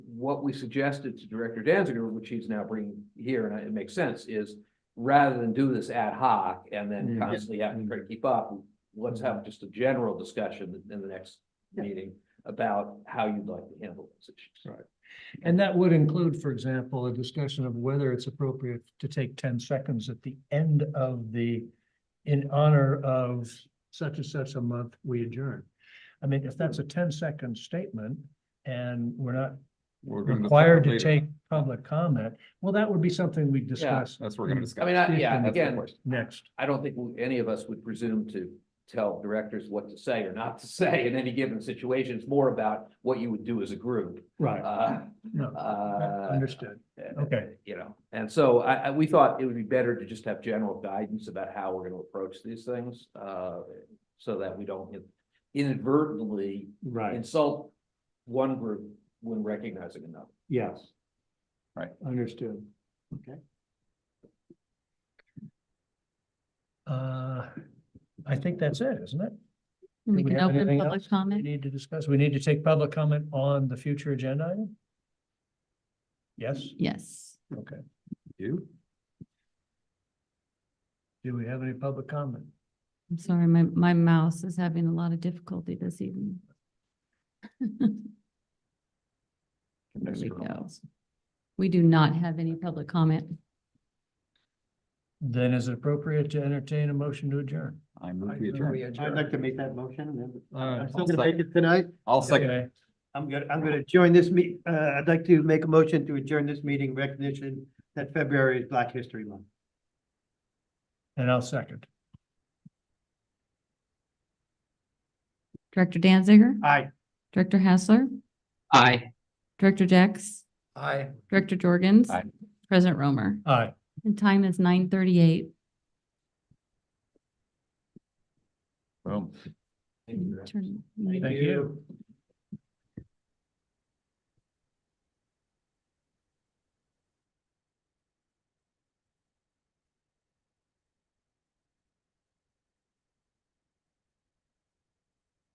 what we suggested to Director Danziger, which he's now bringing here, and it makes sense, is rather than do this ad hoc and then Mm. constantly have to try to keep up, let's have just a general discussion in the next Yeah. meeting about how you'd like to handle those issues. Right. And that would include, for example, a discussion of whether it's appropriate to take ten seconds at the end of the, in honor of such and such a month, we adjourn. I mean, if that's a 10-second statement and we're not We're gonna discuss Required it to to later. take public comment, well, that would be something we discuss That's what we're gonna discuss. I mean, I- yeah, That's again, next. I don't think we- any of us would presume to tell directors what to say or not to say in any given situation. It's more about what you would do as a group. Right. Uh, No, uh, understood. Okay. You know, and so I, I, we thought it would be better to just have general guidance about how we're gonna approach these things, uh, so that we don't inadvertently Right, insult one group when recognizing another. yes. Right. Understood. Okay. Uh, I think that's it, isn't it? Do We we can have open anything public else we comment. need to discuss? We need to take public comment on the future agenda item? Yes, Yes. okay. You? Do we have any public comment? I'm sorry, my, my mouse is having a lot of difficulty this evening. There we go. We do not have any public comment. Then is it appropriate to entertain a motion to adjourn? I move we adjourn. I'd like to make that motion and then All I'm right. still gonna make it tonight. I'll second. Okay. I'm gonna, I'm gonna join this meet, uh, I'd like to make a motion to adjourn this meeting in recognition that February is Black History Month. And I'll second. Director Danziger, Aye. Director Hassler, Aye. Director Jex, Aye. Director Jorgens. Aye. President Romer. Aye. And time is nine thirty-eight. Boom. Turn. Thank you.